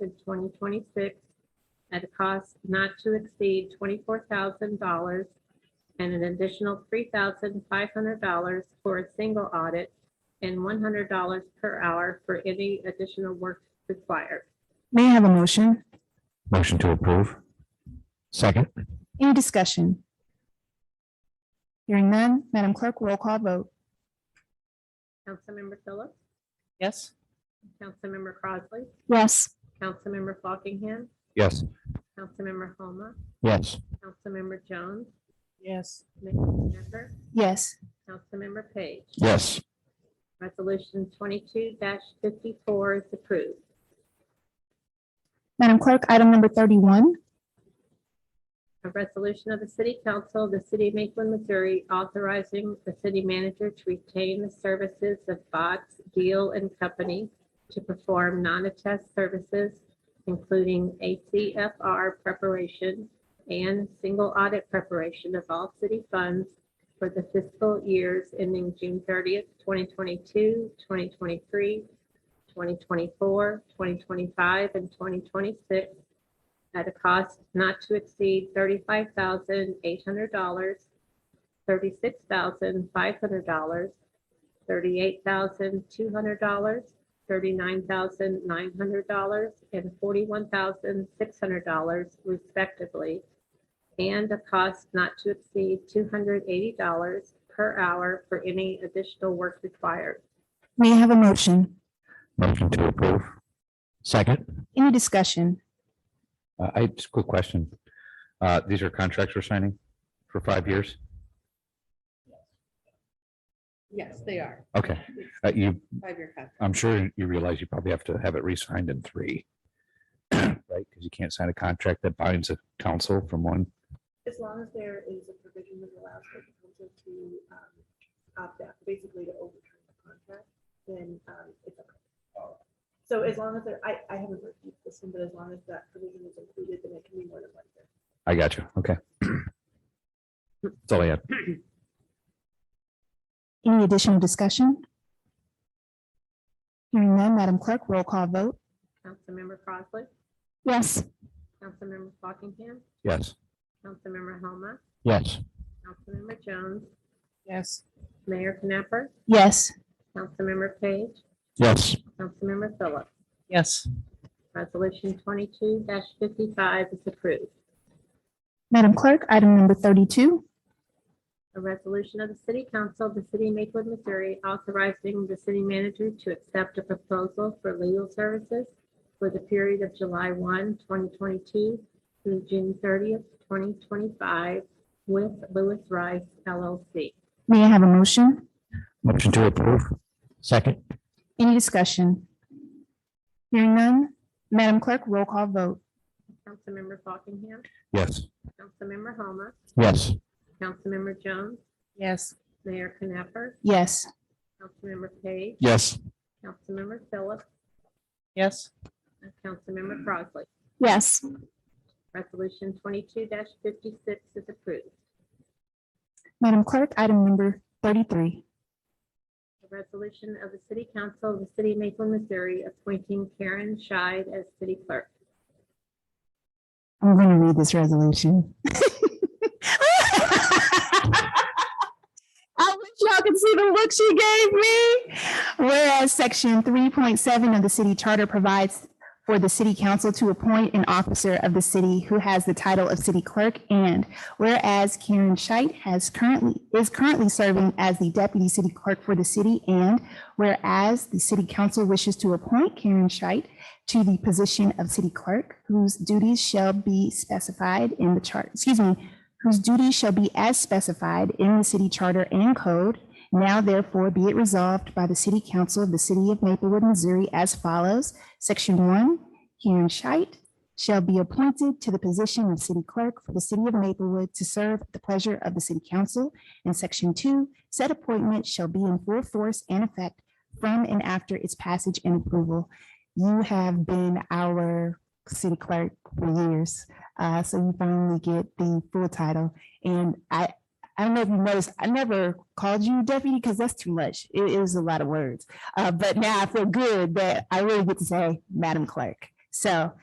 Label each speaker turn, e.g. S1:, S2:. S1: in 2026 at a cost not to exceed $24,000 and an additional $3,500 for a single audit and $100 per hour for any additional work required.
S2: May I have a motion?
S3: Motion to approve. Second.
S2: Any discussion? Hearing none, Madam Clerk, roll call vote.
S1: Councilmember Phillips,
S4: yes,
S1: Councilmember Crossley,
S2: Yes.
S1: Councilmember Fockingham,
S3: Yes.
S1: Councilmember Homa,
S3: Yes.
S1: Councilmember Jones,
S4: yes,
S1: Mayor Shepherd,
S2: Yes.
S1: Councilmember Page.
S3: Yes.
S1: Resolution twenty-two fifty-four is approved.
S2: Madam Clerk, item number thirty-one,
S1: A resolution of the City Council of the City of Maplewood, Missouri, authorizing the city manager to retain the services of Bots Deal and Company to perform non-attest services, including ACFR preparation and single audit preparation of all city funds for the fiscal years ending June thirtieth, twenty 2022, 2023, 2024, 2025, and twenty twenty-six at a cost not to exceed thirty-five thousand eight hundred dollars, thirty-six thousand five hundred dollars, thirty-eight thousand two hundred dollars, thirty-nine thousand nine hundred dollars, and forty-one thousand six hundred dollars respectively, and a cost not to exceed two hundred eighty dollars per hour for any additional work required.
S2: may I have a motion?
S3: Motion to approve. Second.
S2: Any discussion?
S3: Uh, I just quick question. Uh, these are contracts we're signing for five years?
S5: Yes, they are.
S3: Okay. Uh, you,
S5: Five-year contract.
S3: I'm sure you realize you probably have to have it re-signed in three. Right? Because you can't sign a contract that binds a council from one.
S5: As long as there is a provision that allows for the council to um, opt out, basically to overturn the contract, then um, it's okay. So as long as there, I, I haven't reviewed this one, but as long as that provision is included, then it can be more than one year.
S3: I got you. Okay. That's all I had.
S2: Any additional discussion? Hearing none, Madam Clerk, roll call vote.
S1: Councilmember Crossley,
S2: Yes.
S1: Councilmember Fockingham,
S3: Yes.
S1: Councilmember Homa,
S3: Yes.
S1: Councilmember Jones,
S4: yes,
S1: Mayor Knapper,
S2: Yes.
S1: Councilmember Page,
S3: Yes.
S1: Councilmember Phillips.
S4: yes,
S1: Resolution twenty-two fifty-five is approved.
S2: Madam Clerk, item number thirty-two,
S1: A resolution of the City Council of the City of Maplewood, Missouri, authorizing the city manager to accept a proposal for legal services for the period of July 1, 2022, through June thirtieth, twenty twenty-five with Lewis Rice LLC.
S2: may I have a motion?
S3: Motion to approve. Second.
S2: Any discussion? Hearing none, Madam Clerk, roll call vote.
S1: Councilmember Fockingham,
S3: Yes.
S1: Councilmember Homa,
S3: Yes.
S1: Councilmember Jones,
S4: yes,
S1: Mayor Knapper,
S2: Yes.
S1: Councilmember Page,
S3: Yes.
S1: Councilmember Phillips,
S4: yes,
S1: and Councilmember Crossley.
S2: Yes.
S1: Resolution twenty-two fifty-six is approved.
S2: Madam Clerk, item number thirty-three,
S1: A resolution of the City Council of the City of Maplewood, Missouri, appointing Karen Scheid as city clerk.
S2: I'm going to read this resolution. I wish y'all could see the look she gave me. Whereas section three point seven of the city charter provides for the city council to appoint an officer of the city who has the title of city clerk and whereas Karen Scheit has currently, is currently serving as the deputy city clerk for the city and whereas the city council wishes to appoint Karen Scheit to the position of city clerk, whose duties shall be specified in the chart, excuse me, whose duties shall be as specified in the city charter and code. Now therefore be it resolved by the city council of the city of Maplewood, Missouri as follows. Section one, Karen Scheit shall be appointed to the position of city clerk for the city of Maplewood to serve at the pleasure of the city council. And section two, said appointment shall be in full force and effect from and after its passage and approval you have been our city clerk for years. Uh, so you finally get the full title. And I, I don't know if you noticed, I never called you deputy because that's too much. It is a lot of words. Uh, but now I feel good that I really get to say Madam Clerk. So